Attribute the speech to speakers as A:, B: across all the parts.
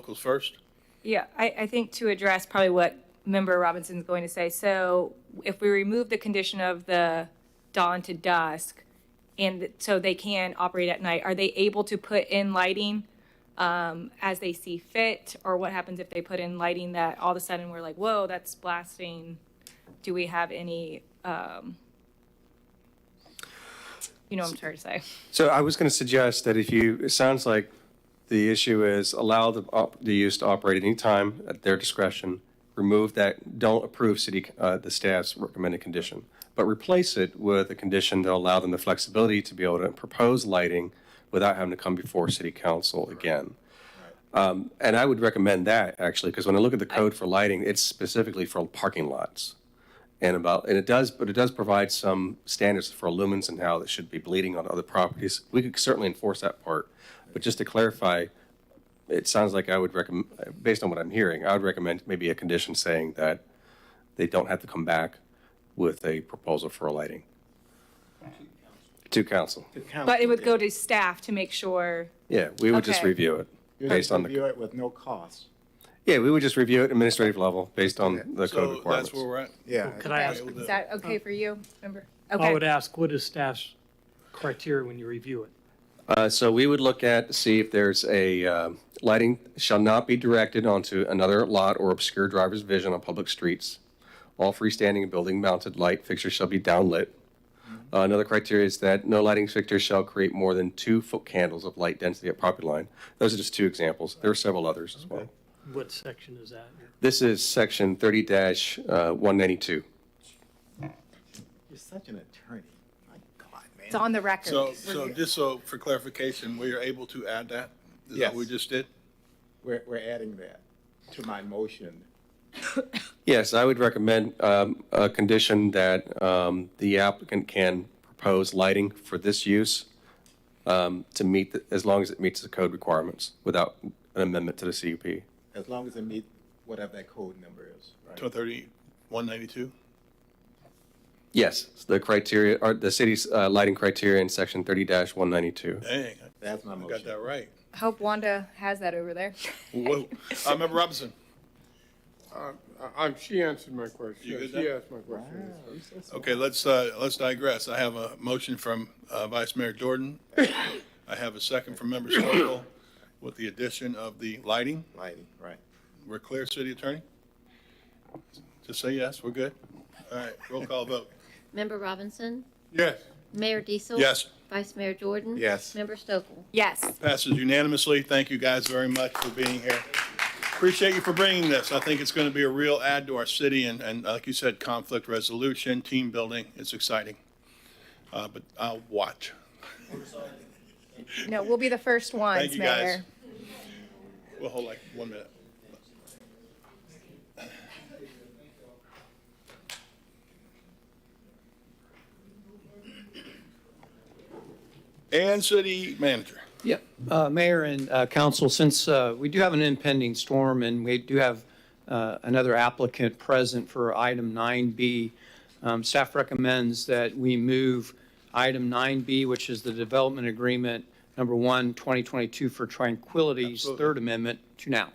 A: vehicles first?
B: Yeah, I, I think to address probably what Member Robinson's going to say, so if we remove the condition of the dawn to dusk, and so they can operate at night, are they able to put in lighting um, as they see fit? Or what happens if they put in lighting that all of a sudden we're like, whoa, that's blasting? Do we have any, um, you know what I'm trying to say?
C: So I was going to suggest that if you, it sounds like the issue is allow the, op- the use to operate at any time at their discretion, remove that, don't approve city, uh, the staff's recommended condition, but replace it with a condition to allow them the flexibility to be able to propose lighting without having to come before city council again. Um, And I would recommend that, actually, because when I look at the code for lighting, it's specifically for parking lots. And about, and it does, but it does provide some standards for lumens and how it should be bleeding on other properties. We could certainly enforce that part. But just to clarify, it sounds like I would recommend, based on what I'm hearing, I would recommend maybe a condition saying that they don't have to come back with a proposal for a lighting. To council.
B: But it would go to staff to make sure,
C: Yeah, we would just
B: Okay.
C: review it
D: You
C: based on the.
D: Review it with no cost.
C: Yeah, we would just review it administrative level based on the code
A: So
C: requirements.
A: that's where we're at?
D: Yeah.
E: Could I ask,
B: is that okay for you, Member?
E: I
B: Okay.
E: would ask, what is staff's criteria when you review it?
C: Uh, so we would look at, see if there's a, uh, lighting shall not be directed onto another lot or obscure driver's vision on public streets. All freestanding and building mounted light fixtures shall be downlit. Uh, Another criteria is that no lighting fixture shall create more than two foot candles of light density at property line. Those are just two examples. There are several others as well.
E: What section is that?
C: This is section thirty dash, uh, one ninety-two.
D: You're such an attorney. My God, man.
B: It's on the record.
A: So,
B: We're
A: so
B: good.
A: just so for clarification, we are able to add that? Is that what we
D: Yes.
A: just did?
D: We're, we're adding that to my motion.
C: Yes, I would recommend um, a condition that um, the applicant can propose lighting for this use um, to meet, the- as long as it meets the code requirements without an amendment to the CUP.
D: As long as it meet whatever that code number is,
A: Two
D: right?
A: thirty, one ninety-two?
C: Yes, the criteria, or the city's uh, lighting criteria in section 30-192.
A: Dang,
D: That's my
A: I got
D: motion.
A: that right.
B: Hope Wanda has that over there.
A: Whoa. Uh, Member Robinson?
F: I- I'm, she answered my question.
A: You good
F: She
A: now?
F: asked my question.
A: Okay, let's, uh, let's digress. I have a motion from, uh, Vice Mayor Jordan. I have a second from Member Stokel with the addition of the lighting.
D: Lighting, right.
A: We're clear, city attorney? Just say yes, we're good? All right, roll call vote.
G: Member Robinson?
F: Yes,
G: Mayor Diesel?
A: Yes.
G: Vice Mayor Jordan?
D: Yes.
G: Member Stokel?
B: Yes.
A: Passes unanimously. Thank you guys very much for being here. Appreciate you for bringing this. I think it's going to be a real add to our city and, and uh, like you said, conflict resolution, team building. It's exciting. Uh, but I'll watch.
B: No, we'll be the first ones,
A: Thank you, guys.
B: Mayor.
A: We'll hold like one minute. And city manager.
H: Yeah, uh, Mayor and uh, council, since uh, we do have an impending storm and we do have uh, another applicant present for item 9B, um, staff recommends that we move item 9B, which is the development agreement, number one, 2022 for Tranquility's Third Amendment, to now.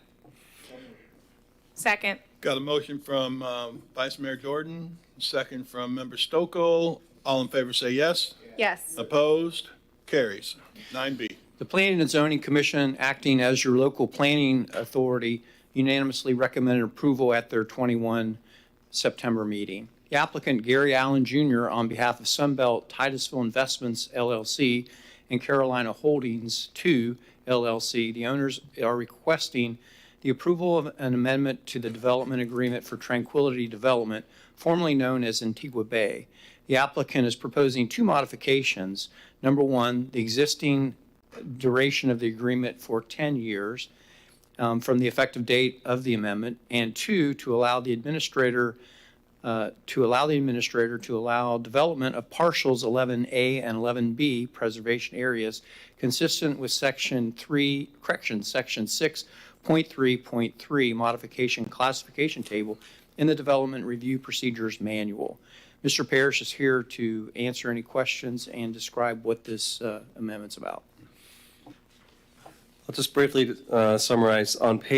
B: Second.
A: Got a motion from um, Vice Mayor Jordan, second from Member Stokel. All in favor say yes.
B: Yes.
A: Opposed? Carries. Nine B.
H: The Planning and Zoning Commission, acting as your local planning authority, unanimously recommended approval at their 21 September meeting. The applicant, Gary Allen Jr., on behalf of Sunbelt Titusville Investments LLC and Carolina Holdings II LLC, the owners are requesting the approval of an amendment to the development agreement for Tranquility Development, formerly known as Antigua Bay. The applicant is proposing two modifications. Number one, the existing duration of the agreement for 10 years um, from the effective date of the amendment, and two, to allow the administrator, uh, to allow the administrator to allow development of partials 11A and 11B preservation areas consistent with section 3, correction, section 6.3.3 modification classification table in the Development Review Procedures Manual. Mr. Parrish is here to answer any questions and describe what this uh, amendment's about.
C: I'll just briefly uh, summarize, on page